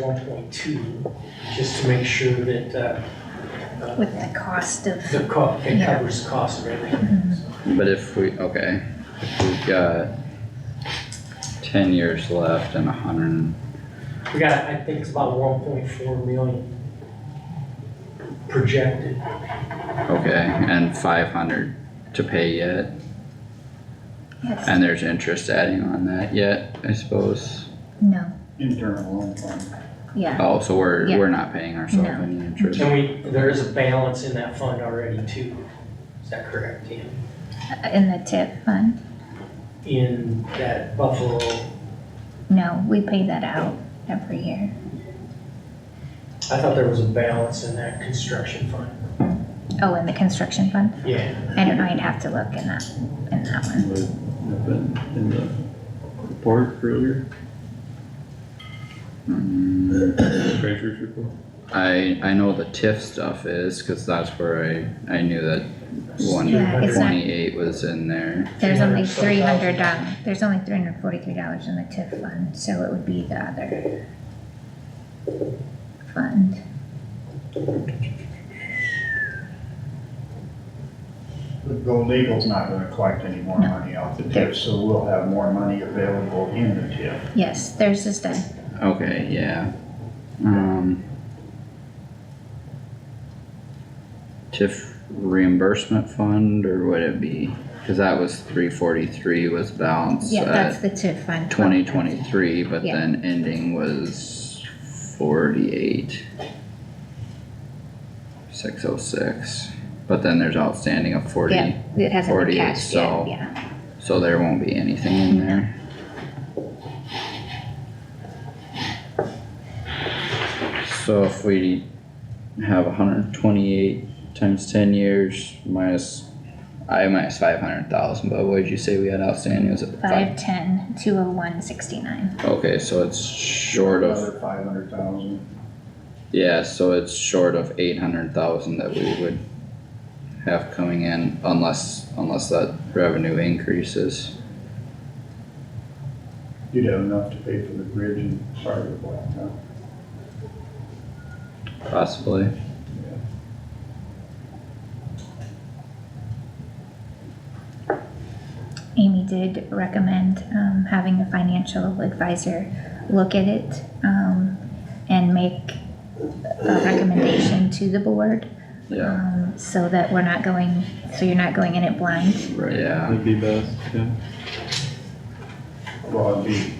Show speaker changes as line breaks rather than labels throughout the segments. one point two, just to make sure that, uh, uh,
with the cost of,
the co, it
Yeah.
covers the cost of everything.
Mhm.
so.
But if we, okay, if we've got ten years left and a hundred, and-
We got, I think it's about one point four million projected.
okay, and five hundred to pay yet,
yes,
and there's interest adding on that yet, I suppose.
no,
Internal loan fund.
yeah,
Oh, so we're,
Yeah.
we're not paying ourselves
No.
any interest,
And we, there is a balance in that fund already too. Is that correct, Ian?
in the tip fund,
In that Buffalo,
no, we pay that out every year.
I thought there was a balance in that construction fund.
Oh, in the construction fund,
Yeah,
I don't know, I'd have to look in that, in that one.
Would have been in the report earlier, treasurer's report.
I, I know the TIF stuff is, cause that's where I, I knew that one
Yeah, it's not-
twenty-eight was in there.
There's only three hundred dollars,
300.
there's only three hundred forty-three dollars in the TIF fund, so it would be the other fund.
The legal's not gonna collect any more
No.
money off the tip, so we'll have more money available in the tip.
Yes, there's just a,
Okay, yeah. Um. TIF reimbursement fund, or would it be, cause that was three forty-three was balanced
yeah, that's
at
the TIF fund.
uh, twenty twenty-three, but
Yeah.
then ending was forty-eight. Six oh six, but then there's outstanding of forty,
Yeah, it hasn't been
48,
cashed
so-
yet, yeah,
so there won't be anything in there. So if we have hundred and twenty-eight times ten years minus, I minus five hundred thousand, but what did you say we had outstanding, was it
five ten, two oh one sixty-nine,
Okay, so it's short of,
Another five hundred thousand.
yeah, so it's short of eight hundred thousand that we would have coming in unless, unless that revenue increases.
You'd have enough to pay for the bridge and part of the blacktop.
Possibly.
Amy did recommend, um, having a financial advisor look at it, um, and make a recommendation to the board.
Yeah,
Um, so that we're not going, so you're not going in it blind.
right, yeah.
That'd be best, yeah.
Well, it'd be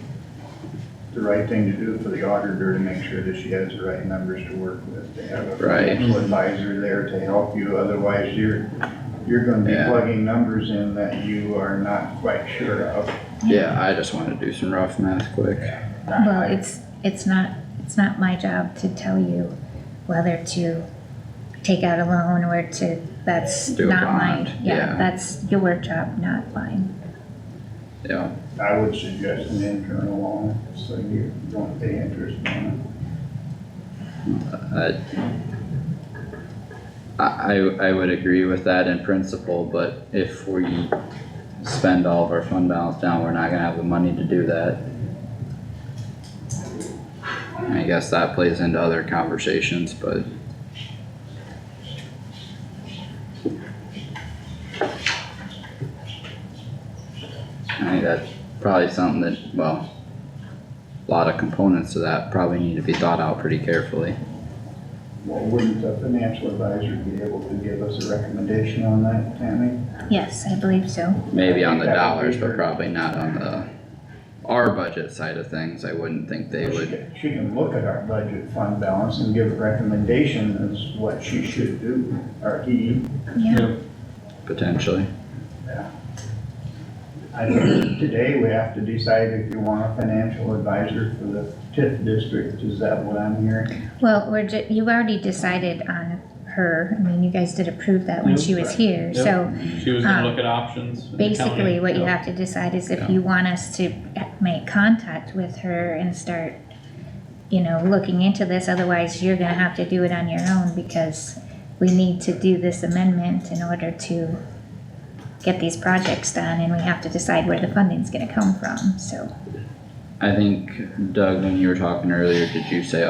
the right thing to do for the auditor to make sure that she has the right numbers to work with. To have a
Right.
financial advisor there to help you, otherwise you're, you're gonna be
Yeah.
plugging numbers in that you are not quite sure of.
Yeah, I just wanted to do some rough math quick.
Well, it's, it's not, it's not my job to tell you whether to take out a loan or to, that's
Do a
not
bond,
mine.
yeah.
Yeah, that's your job, not mine.
Yeah,
I would suggest an internal loan, so you don't pay interest on
I, I, I would agree with that in principle, but if we spend all of our fund balance down, we're not gonna have the money to do that. I guess that plays into other conversations, but I think that's probably something that, well, a lot of components to that probably need to be thought out pretty carefully.
it. Well, wouldn't the financial advisor be able to give us a recommendation on that, Tammy?
Yes, I believe so.
Maybe on the
That would
dollars,
be
but
her-
probably not on the, our budget side of things, I wouldn't think they
She
would,
can- She can look at our budget fund balance and give a recommendation as what she should do, or he.
Yeah,
potentially.
I think today we have to decide if you want a financial advisor for the TIF district, is that what I'm hearing?
well, we're ju, you've already decided on her. I mean, you guys did approve that when
Yep.
she was here,
Yep.
so
She was gonna
Um,
look at options. in the county,
basically what you
so.
have to decide is if
Yeah.
you want us to make contact with her and start, you know, looking into this, otherwise you're gonna have to do it on your own because we need to do this amendment in order to get these projects done and we have to decide where the funding's gonna come from, so.
I think Doug, when you were talking earlier, did you say